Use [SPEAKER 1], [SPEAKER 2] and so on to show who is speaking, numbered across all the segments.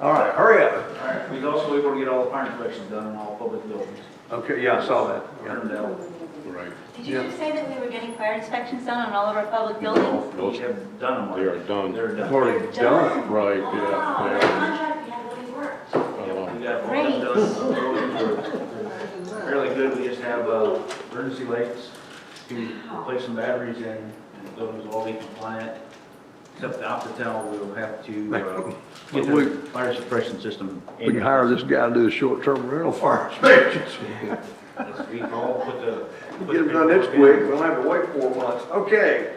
[SPEAKER 1] All right, hurry up.
[SPEAKER 2] All right, we also, we want to get all the fire inspections done in all public buildings.
[SPEAKER 1] Okay, yeah, I saw that. yeah.
[SPEAKER 2] Turn down.
[SPEAKER 3] Right.
[SPEAKER 4] Did you just say that we were getting fire inspections done on all of our public buildings?
[SPEAKER 2] We have done them.
[SPEAKER 3] They are done.
[SPEAKER 2] They're done.
[SPEAKER 1] Already done.
[SPEAKER 3] Right,
[SPEAKER 4] Oh, Wow,
[SPEAKER 3] yeah,
[SPEAKER 4] our
[SPEAKER 3] yeah.
[SPEAKER 4] contract, we have really worked.
[SPEAKER 3] Uh,
[SPEAKER 2] We got them done. Fairly good, we just have uh, emergency lights to replace some batteries in, and the buildings will all be compliant. Except the Optitel, we'll have to uh, get the fire suppression system.
[SPEAKER 5] We can hire this guy to do the short-term rental fire inspections.
[SPEAKER 2] Let's- We all put the. put
[SPEAKER 1] Get
[SPEAKER 2] the
[SPEAKER 1] it done this
[SPEAKER 2] paperwork
[SPEAKER 1] week,
[SPEAKER 2] in.
[SPEAKER 1] we'll have to wait four months. Okay.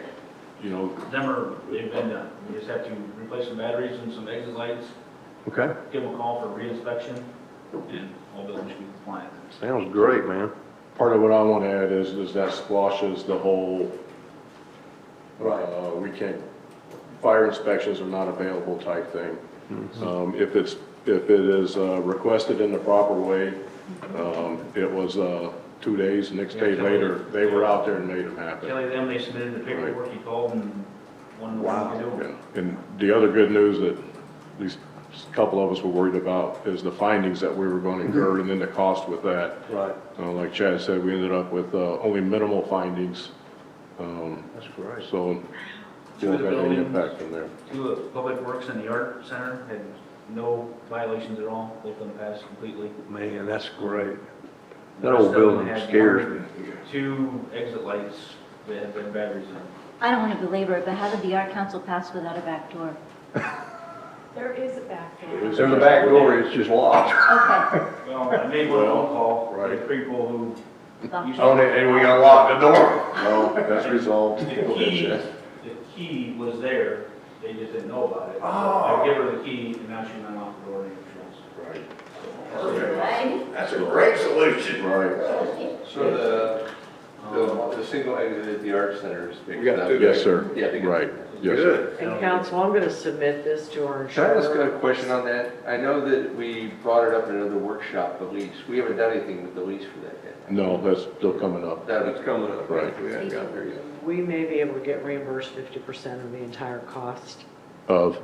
[SPEAKER 3] You know,
[SPEAKER 2] Them are, they've been done. We just have to replace some batteries and some exit lights,
[SPEAKER 5] Okay,
[SPEAKER 2] give them a call for reinspection, and all buildings should be compliant.
[SPEAKER 5] sounds great, man.
[SPEAKER 3] part of what I want to add is, is that squashes the whole, uh, we can't, fire inspections are not available type thing.
[SPEAKER 5] Mm-hmm.
[SPEAKER 3] Um, if it's, if it is uh, requested in the proper way, um, it was, uh, two days, next day
[SPEAKER 2] Yeah,
[SPEAKER 3] later,
[SPEAKER 2] Kelly-
[SPEAKER 3] they were out there and made them happen.
[SPEAKER 2] Kelly, them, they submitted the paperwork, you called and one what to do.
[SPEAKER 3] Yeah. And the other good news that at least a couple of us were worried about is the findings that we were going to incur and then the cost with that.
[SPEAKER 1] Right,
[SPEAKER 3] Uh, Like Chad said, we ended up with uh, only minimal findings, um,
[SPEAKER 1] that's great.
[SPEAKER 3] so won't have any impact from there.
[SPEAKER 2] Two of Public Works and the Art Center had no violations at all, both of them passed completely.
[SPEAKER 1] Man, that's great.
[SPEAKER 2] The
[SPEAKER 1] That old
[SPEAKER 2] rest of them
[SPEAKER 1] building
[SPEAKER 2] had
[SPEAKER 1] scares me.
[SPEAKER 2] one- Two exit lights that had been batteries in. them.
[SPEAKER 6] I don't want to belabor it, but how did the art council pass without a back door?
[SPEAKER 7] There is a back door.
[SPEAKER 1] There's a back door, it's just locked.
[SPEAKER 6] Okay.
[SPEAKER 2] Well, I made one phone call,
[SPEAKER 3] Right.
[SPEAKER 2] the people who.
[SPEAKER 6] Well,
[SPEAKER 2] usually-
[SPEAKER 1] Oh, and- and we gotta lock the door.
[SPEAKER 3] No, that's resolved.
[SPEAKER 2] The key, the key was there, they just didn't know about it. So I give her the key, and now she went off the door and entrance.
[SPEAKER 3] Right,
[SPEAKER 4] Right?
[SPEAKER 1] That's a great solution.
[SPEAKER 3] right.
[SPEAKER 8] So the,
[SPEAKER 2] Um,
[SPEAKER 8] the, the single exit at the art center is big
[SPEAKER 1] We got
[SPEAKER 8] enough.
[SPEAKER 1] two.
[SPEAKER 3] Yes, sir.
[SPEAKER 8] Yeah, they get-
[SPEAKER 3] Right, yes. sir.
[SPEAKER 1] Good.
[SPEAKER 9] And council, I'm going to submit this to our
[SPEAKER 8] Can I
[SPEAKER 9] insurer.
[SPEAKER 8] ask a question on that? I know that we brought it up in another workshop, the lease. We haven't done anything with the lease for that yet.
[SPEAKER 3] No, that's still coming up.
[SPEAKER 1] That's coming up.
[SPEAKER 3] Right.
[SPEAKER 1] We haven't got there yet.
[SPEAKER 9] We may be able to get reimbursed 50% of the entire cost
[SPEAKER 3] Of,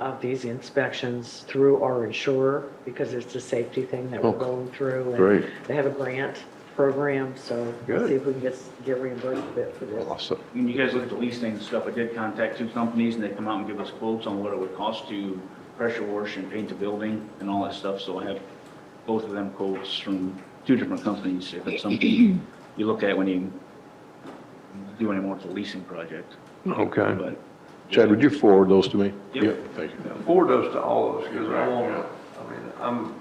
[SPEAKER 9] of these inspections through our insurer because it's a safety thing that we're
[SPEAKER 3] Oh,
[SPEAKER 9] going through. and
[SPEAKER 3] great.
[SPEAKER 9] They have a grant program, so we'll
[SPEAKER 5] Good.
[SPEAKER 9] see if we can get, get reimbursed a bit for this.
[SPEAKER 3] awesome.
[SPEAKER 2] When you guys looked at leasing and stuff, I did contact two companies, and they come out and give us quotes on what it would cost to pressure wash and paint the building and all that stuff, so I have both of them quotes from two different companies, if it's something you look at when you do any more of the leasing project,
[SPEAKER 5] Okay.
[SPEAKER 2] but.
[SPEAKER 3] Chad, would you forward those to me?
[SPEAKER 2] Yep.
[SPEAKER 3] Thank you.
[SPEAKER 1] Forward those to all of us, because I want to, I mean, I'm,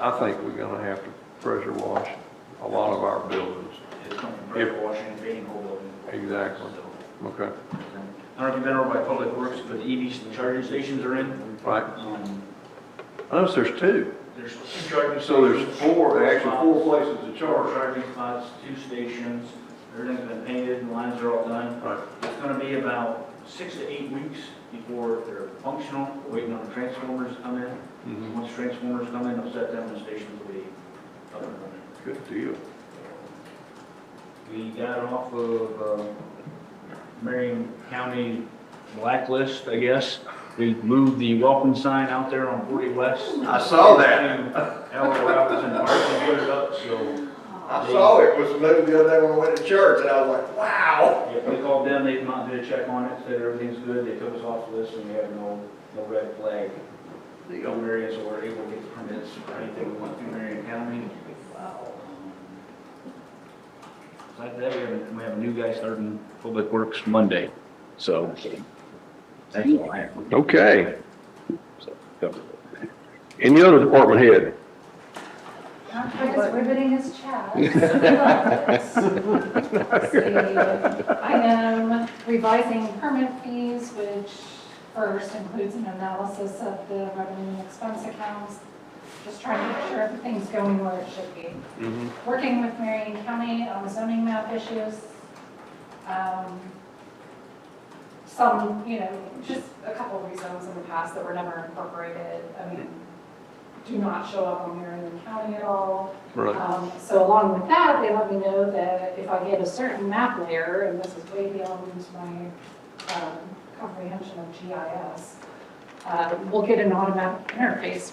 [SPEAKER 1] I think we're gonna have to pressure wash a lot of our buildings.
[SPEAKER 2] It's coming from pressure washing and painting whole building.
[SPEAKER 1] Exactly.
[SPEAKER 2] So-
[SPEAKER 1] Okay,
[SPEAKER 2] I don't know if you've been over by Public Works, but the EV charging stations are in.
[SPEAKER 1] right.
[SPEAKER 2] Um,
[SPEAKER 1] I noticed there's two.
[SPEAKER 2] There's two charging stations.
[SPEAKER 1] So there's four, actually four places to
[SPEAKER 2] Four
[SPEAKER 1] charge.
[SPEAKER 2] charging spots, two stations, everything's been painted, and lines are all done.
[SPEAKER 1] Right.
[SPEAKER 2] It's gonna be about six to eight weeks before they're functional, waiting on the transformers to come in.
[SPEAKER 1] Mhm.
[SPEAKER 2] Once transformers come in, I'll set them, and the stations will be up and running.
[SPEAKER 1] Good deal.
[SPEAKER 2] We got off of uh, Marion County blacklist, I guess. We moved the welcome sign out there on 40 West.
[SPEAKER 1] I saw that.
[SPEAKER 2] Al Robertson Park and put it up, so
[SPEAKER 1] I saw it was moved the other day when I went to church, and I was like, wow.
[SPEAKER 2] yeah, we called them, they come out and did a check on it, said everything's good. They took us off the list and we have no, no red flag. The other areas were able to get permits for anything we went through Marion County. Besides that, we have, a- we have a new guy starting Public Works Monday, so. That's all I have.
[SPEAKER 5] Okay. Any other department head?
[SPEAKER 4] Tom Ford is riveting his chat. Let's see. I am revising permit fees, which first includes an analysis of the revenue and expense accounts, just trying to make sure everything's going where it should be. Working with Marion County on the zoning map issues. Um, Some, you know, just a couple of reasons in the past that were never incorporated. I mean, do not show up on Marion County at all.
[SPEAKER 1] Right.
[SPEAKER 4] Um, So along with that, they let me know that if I get a certain map layer, and this is way beyond um, my um, comprehension of GIS, uh, we'll get an automatic interface